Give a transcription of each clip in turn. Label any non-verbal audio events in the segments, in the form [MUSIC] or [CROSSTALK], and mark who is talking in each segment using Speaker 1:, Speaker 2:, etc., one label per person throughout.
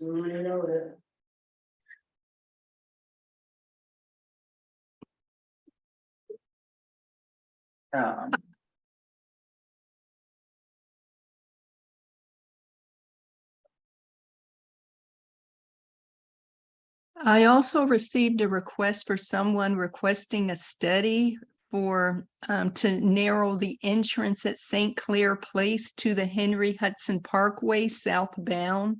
Speaker 1: I know that.
Speaker 2: Um,
Speaker 3: I also received a request for someone requesting a study for, um, to narrow the entrance at St. Clair Place to the Henry Hudson Parkway southbound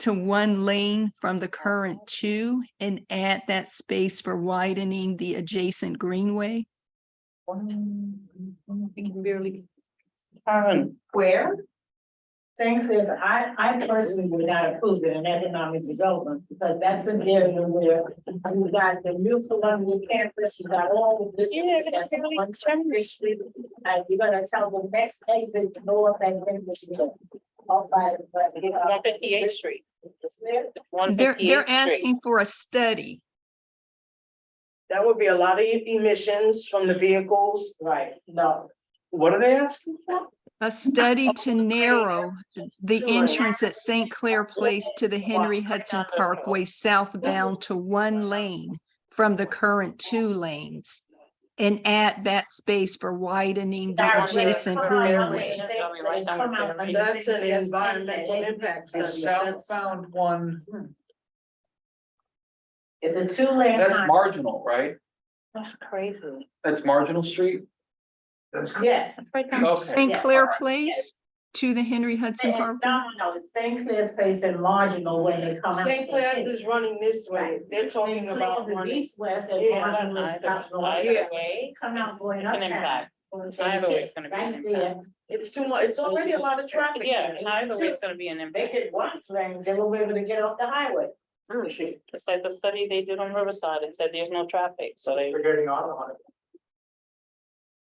Speaker 3: to one lane from the current two and add that space for widening the adjacent greenway.
Speaker 2: We can barely. Karen,
Speaker 1: Where? St. Clair, I, I personally would not approve it in economic development, because that's an area where you got the new Columbia campus, you got all the businesses. that's on one street, And you're gonna tell the next exit north and then this go. All by, but, you know,
Speaker 4: One fifty eighth street. One
Speaker 3: They're,
Speaker 4: fifty
Speaker 3: they're
Speaker 4: eighth street.
Speaker 3: asking for a study.
Speaker 5: That would be a lot of e- emissions from the vehicles.
Speaker 1: right, no.
Speaker 5: What are they asking for?
Speaker 3: A
Speaker 4: Oh,
Speaker 3: study to narrow the
Speaker 5: Sure.
Speaker 3: entrance at St. Clair Place to the Henry Hudson Parkway southbound to one lane from the current two lanes. And add that space for widening the
Speaker 4: That way,
Speaker 3: adjacent
Speaker 4: come on, that way.
Speaker 3: greenway.
Speaker 5: That's an environmental impact
Speaker 2: the
Speaker 5: study. That's-
Speaker 2: southbound one,
Speaker 1: It's a two lane.
Speaker 2: that's marginal, right?
Speaker 4: That's crazy.
Speaker 2: That's marginal street? That's.
Speaker 1: Yeah.
Speaker 2: Okay,
Speaker 3: St. Clair Place to the Henry Hudson
Speaker 1: It's
Speaker 3: Parkway.
Speaker 1: no, no, it's St. Clair's place and marginal when they come out.
Speaker 5: St. Clair's is running this way. They're
Speaker 1: St.
Speaker 5: talking
Speaker 1: Clair's
Speaker 5: about
Speaker 1: is
Speaker 5: running.
Speaker 1: East west and
Speaker 5: Yeah,
Speaker 1: marginal is up north.
Speaker 5: either
Speaker 1: They Come out going
Speaker 4: It's an
Speaker 1: uptown.
Speaker 4: impact. Either way, it's gonna be an
Speaker 1: Right there,
Speaker 4: impact.
Speaker 5: It's too much. It's already a lot of traffic.
Speaker 4: Yeah,
Speaker 5: there.
Speaker 4: either way, it's gonna be an
Speaker 1: they
Speaker 4: impact.
Speaker 1: could watch them, they will be able to get off the highway.
Speaker 4: It's like the study they did on Riverside and said there's no traffic,
Speaker 5: [LAUGHS]
Speaker 4: so they.
Speaker 6: Forgetting on, on,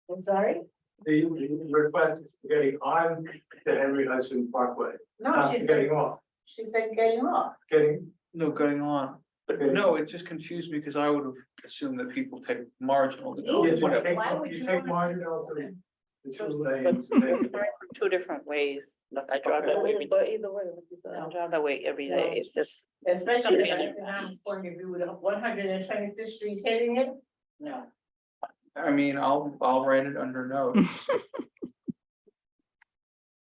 Speaker 1: I'm sorry?
Speaker 6: the request is getting on the Henry Hudson Parkway,
Speaker 1: No,
Speaker 4: Oh,
Speaker 6: not
Speaker 1: she said,
Speaker 6: getting off,
Speaker 1: she said getting off.
Speaker 6: getting.
Speaker 2: no, going on, but no, it just confused me because I would have assumed that people take marginal to go,
Speaker 6: You take-
Speaker 2: whatever.
Speaker 1: Why would
Speaker 6: you
Speaker 1: you
Speaker 6: take
Speaker 1: want-
Speaker 6: margin out to the two
Speaker 4: But [LAUGHS]
Speaker 6: lanes. and then-
Speaker 4: Two different ways, like I drive that way, every-
Speaker 5: But either way.
Speaker 4: I drive that way every day, it's just.
Speaker 1: Especially
Speaker 4: Yeah.
Speaker 1: if economic point of view with one hundred and twenty fifth street hitting it, no.
Speaker 2: I mean, I'll, I'll write it under
Speaker 3: [LAUGHS]
Speaker 2: note.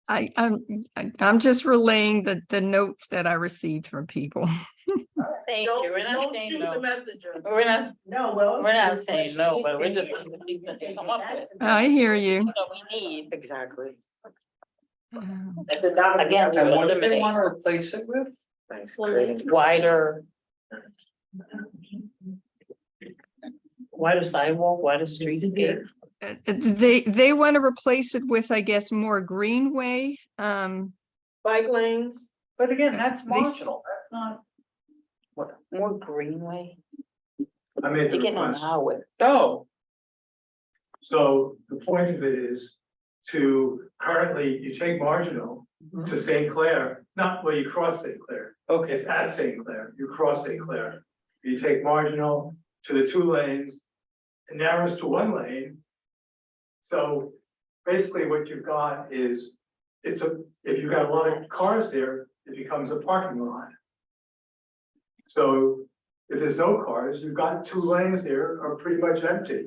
Speaker 3: I, I'm, I- I'm just relaying the, the notes that I received from people.
Speaker 4: Thank
Speaker 5: Don't,
Speaker 4: you, we're not
Speaker 5: don't
Speaker 4: saying
Speaker 5: shoot the
Speaker 4: no,
Speaker 5: messenger.
Speaker 4: we're not,
Speaker 1: No, well.
Speaker 4: we're not saying no, but we're just. Come up with.
Speaker 3: I hear you.
Speaker 4: What we need.
Speaker 5: Exactly.
Speaker 3: Um,
Speaker 5: At the dollar.
Speaker 4: Again,
Speaker 2: And what do they
Speaker 4: eliminate.
Speaker 2: wanna replace it with?
Speaker 4: Wider. Wider sidewalk, wider street.
Speaker 3: uh, They, they want to replace it with, I guess, more greenway. Um,
Speaker 5: Bike lanes.
Speaker 2: But again, that's
Speaker 3: They s-
Speaker 2: marginal, that's not,
Speaker 4: What, more greenway?
Speaker 6: I made the
Speaker 4: You're getting on the
Speaker 6: request,
Speaker 4: highway.
Speaker 2: oh,
Speaker 6: so the point of it is to currently, you take marginal to St. Clair, not where you cross St. Clair.
Speaker 2: okay,
Speaker 6: It's at St. Clair, you cross St. Clair, you take marginal to the two lanes, it narrows to one lane. So basically what you've got is, it's a, if you've got a lot of cars there, it becomes a parking lot. So if there's no cars, you've got two lanes there are pretty much empty,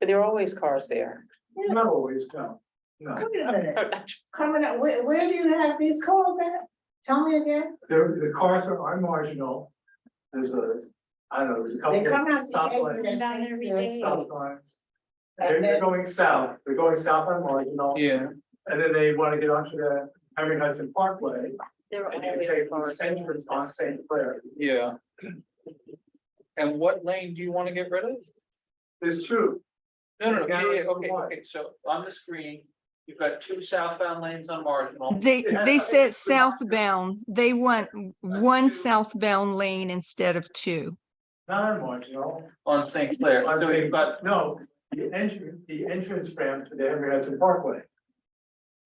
Speaker 4: But there are always cars there. [LAUGHS]
Speaker 6: not always, no, no.
Speaker 1: Wait a minute, coming up, where, where do you have these calls at? Tell me again,
Speaker 6: There, the cars are are marginal, there's a, I don't know, there's a couple.
Speaker 1: they come out.
Speaker 6: Stop
Speaker 1: the
Speaker 6: lights.
Speaker 1: exit at St. Clair's
Speaker 6: stop
Speaker 1: Place.
Speaker 6: signs. They're
Speaker 1: And
Speaker 6: they're
Speaker 1: then,
Speaker 6: going south, they're going south on Marginal,
Speaker 2: yeah,
Speaker 6: and then they want to get onto the Henry Hudson Parkway.
Speaker 4: There are
Speaker 6: And you take
Speaker 4: always
Speaker 6: this entrance on
Speaker 4: cars.
Speaker 6: St. Clair.
Speaker 2: yeah. And what lane do you wanna get rid of?
Speaker 6: It's true,
Speaker 2: No, no, no, yeah,
Speaker 6: Yeah,
Speaker 2: yeah,
Speaker 6: it's
Speaker 2: okay,
Speaker 6: wide.
Speaker 2: okay, so on the screen, you've got two southbound lanes on marginal.
Speaker 3: They,
Speaker 6: Yeah,
Speaker 3: they
Speaker 6: I
Speaker 3: said
Speaker 6: agree.
Speaker 3: southbound, they want
Speaker 2: two.
Speaker 3: one southbound lane instead of two.
Speaker 6: not on Marginal.
Speaker 2: On St. Clair,
Speaker 6: on
Speaker 2: so you've
Speaker 6: St.
Speaker 2: got,
Speaker 6: No, the entrance, the entrance ramp to the Henry Hudson Parkway.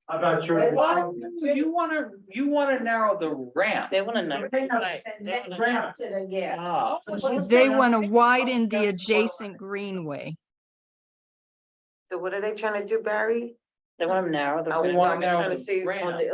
Speaker 6: I'm not sure.
Speaker 1: Wait,
Speaker 2: why, you wanna, you wanna narrow the ramp.
Speaker 4: They wanna know.
Speaker 1: they know,
Speaker 4: Right,
Speaker 1: and
Speaker 4: they
Speaker 1: then
Speaker 4: wanna-
Speaker 1: ramp to the, yeah.
Speaker 2: Ah,
Speaker 3: They want to widen the adjacent greenway.
Speaker 5: So what are they trying to do, Barry?
Speaker 4: They wanna narrow the.
Speaker 5: I
Speaker 2: They
Speaker 4: ramp.
Speaker 2: wanna narrow
Speaker 5: trying to
Speaker 2: the
Speaker 5: see on
Speaker 2: ramp.
Speaker 5: the